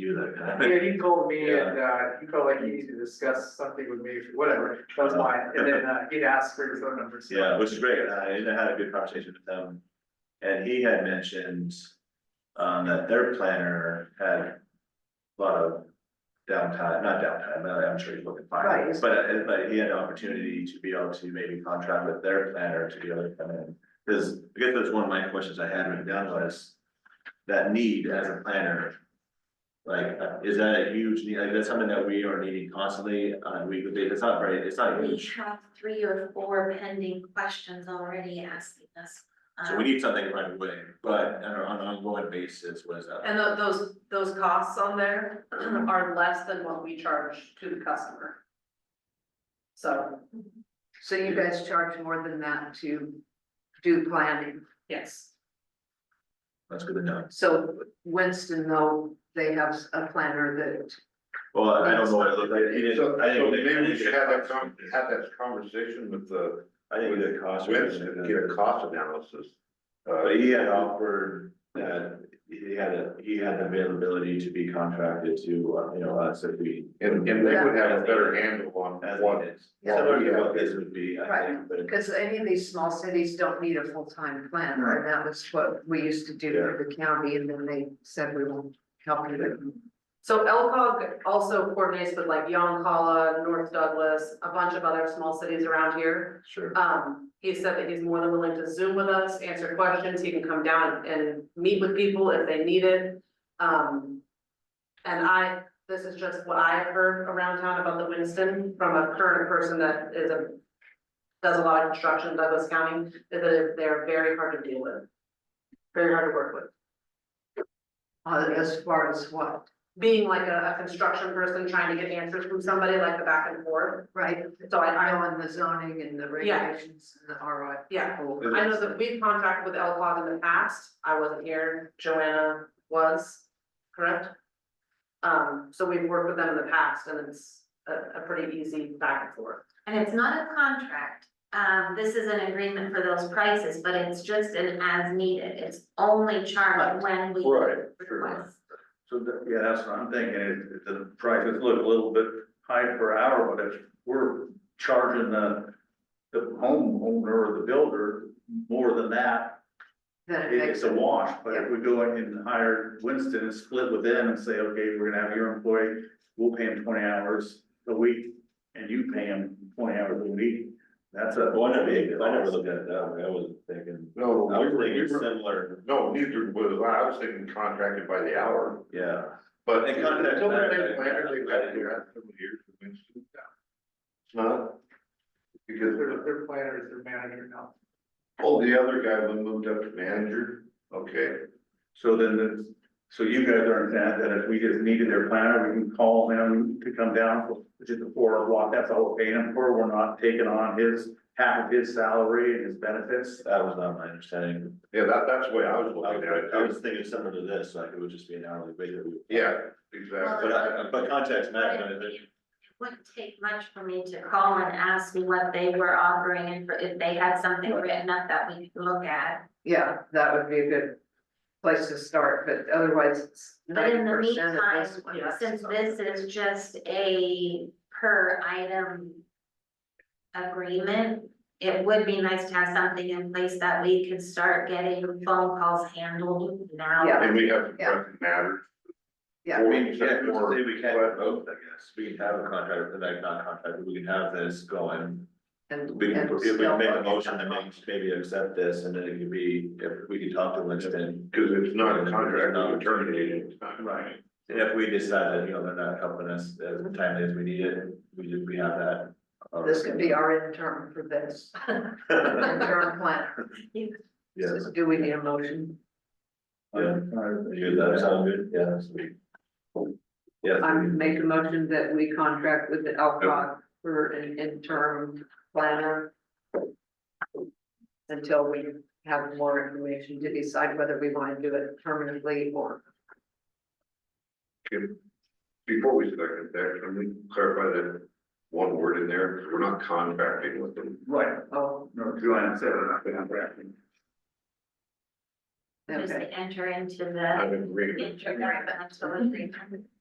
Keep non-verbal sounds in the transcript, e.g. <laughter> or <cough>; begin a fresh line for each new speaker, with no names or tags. do that kind of thing.
Yeah, he told me and, uh, he felt like he needed to discuss something with me, whatever, that was fine, and then, uh, he'd ask for your phone number, so.
Yeah, which is great, and I uh, and I had a good conversation with him, and he had mentioned. Um, that their planner had a lot of downtime, not downtime, I- I'm sure he's looking
Right,
fine,
it's-
but uh, but he had an opportunity to be able to maybe contract with their planner to be able to come in. Cause I guess that's one of my questions I had written down was that need as a planner. Like, uh, is that a huge need, like, that's something that we are needing constantly on a weekly basis, it's not very, it's not
We
huge.
have three or four pending questions already asking us.
So
um,
we need something right away, but on an ongoing basis, what is that?
And tho- those, those costs on there <clears throat> are less than what we charge to the customer. So,
So you guys charge more than that to do planning.
yes,
That's good to know.
So Winston, though, they have a planner
Well, I don't know what it looked like. He
So,
didn't- I
so
didn't get-
maybe
I
we
didn't
should
get a
have that
cost.
con, have that conversation with the,
I didn't get a cost.
with, get a cost analysis. Uh,
But he had offered that he had a, he had availability to be contracted to, uh, you know, us if we.
and, and they would have a better handle on
As
what,
needed.
Yeah.
Similar to what this would be, I
Right.
think, but
that, because any of these small cities don't need a full-time planner, and that was what we used to do for the county, and then they said we will help you with
so Elcog also coordinates with like Yoncala, North Douglas, a bunch of other small cities around here.
sure.
Um, he said that he's more than willing to Zoom with us, answer questions, he can come down and meet with people if they need it. Um, and I, this is just what I have heard around town about the Winston from a current person that is a. Does a lot of construction in Douglas County, is that they're very hard to deal with. Very hard to work with,
uh, as far as what,
being like a, a construction person trying to get answers from somebody like the back and forth,
right?
so I, I
I know in the zoning and the
Yeah.
regulations and the RI.
Yeah.
people.
Is it-
I know that we've contracted with Elcog in the past, I wasn't here, Joanna was, correct? Um, so we've worked with them in the past and it's a, a pretty easy back and forth.
And it's not a contract, um, this is an agreement for those prices, but it's just an as needed, it's only charged when we
Right,
request.
So that, yeah, that's what I'm thinking, is the prices look a little bit high per hour, but if we're charging the. The homeowner or the builder more than that,
Then
it-
it
it's
makes
a wash, but if
Yeah.
we go in and hire Winston and split with them and say, okay, we're gonna have your employee. We'll pay him twenty hours a week and you pay him twenty hours a week, that's a.
Well, I never, I never looked at it that way. I wasn't thinking,
no,
I
we
was
were, we
thinking
were,
similar,
no, neither was I, I was thinking contracted by the hour,
yeah.
but.
They contract-
Until they've been planner, they've had to have some years of Winston. It's not, because
Their, their planner is their manager now.
Oh, the other guy who moved up to manager, okay,
So then, the- so you guys understand that if we just needed their planner, we can call him to come down for just a four hour block, that's all we're paying him for, we're not taking on his, half of his salary and his benefits.
That was not my understanding.
yeah, that, that's the way I was
I
looking at
was,
it,
I
too.
was thinking similar to this, like it would just be an hourly rate. that we would-
yeah, exactly.
But I, but context matters,
It Wouldn't take much for me to call and ask me what they were offering and for- if they had something written up that we could look at.
Yeah, that would be a good place to start, but otherwise
But
ninety
in the
percent of
meantime,
this one. has to
since
go.
this is just a per item agreement, it would be nice to have something in place that we could start getting phone calls handled now.
Yeah.
And we have to
Yeah.
correct matters.
Yeah.
I mean, yeah,
Or-
we can have both, I guess, we can have a contract, but like not contract, but we can have this going.
And.
We can,
and
if we
still
can
uh,
make a
look at
motion
that.
to make, maybe accept this, and then it could be, if we could talk to Winston.
Cause it's not a contract,
It's not.
it's terminated, it's not.
Right.
And if we decide that, you know, they're not helping us as timely as we need it, we just, we have that.
This
<laughs>
could be our intern for this, intern planner.
Yes,
So Do we need a motion?
yeah, you, that sound good, yeah, sweet. Yes.
I make a motion that we contract with the Alcock for an interim planner. Until we have more information to decide whether we want to do it permanently or.
Before we second that, can we clarify that one word in there, we we're not contracting with them.
Right,
Oh,
no, Joanna said we're not contracting.
just
Okay.
enter into the
I'm agreeing.
introduction agreement.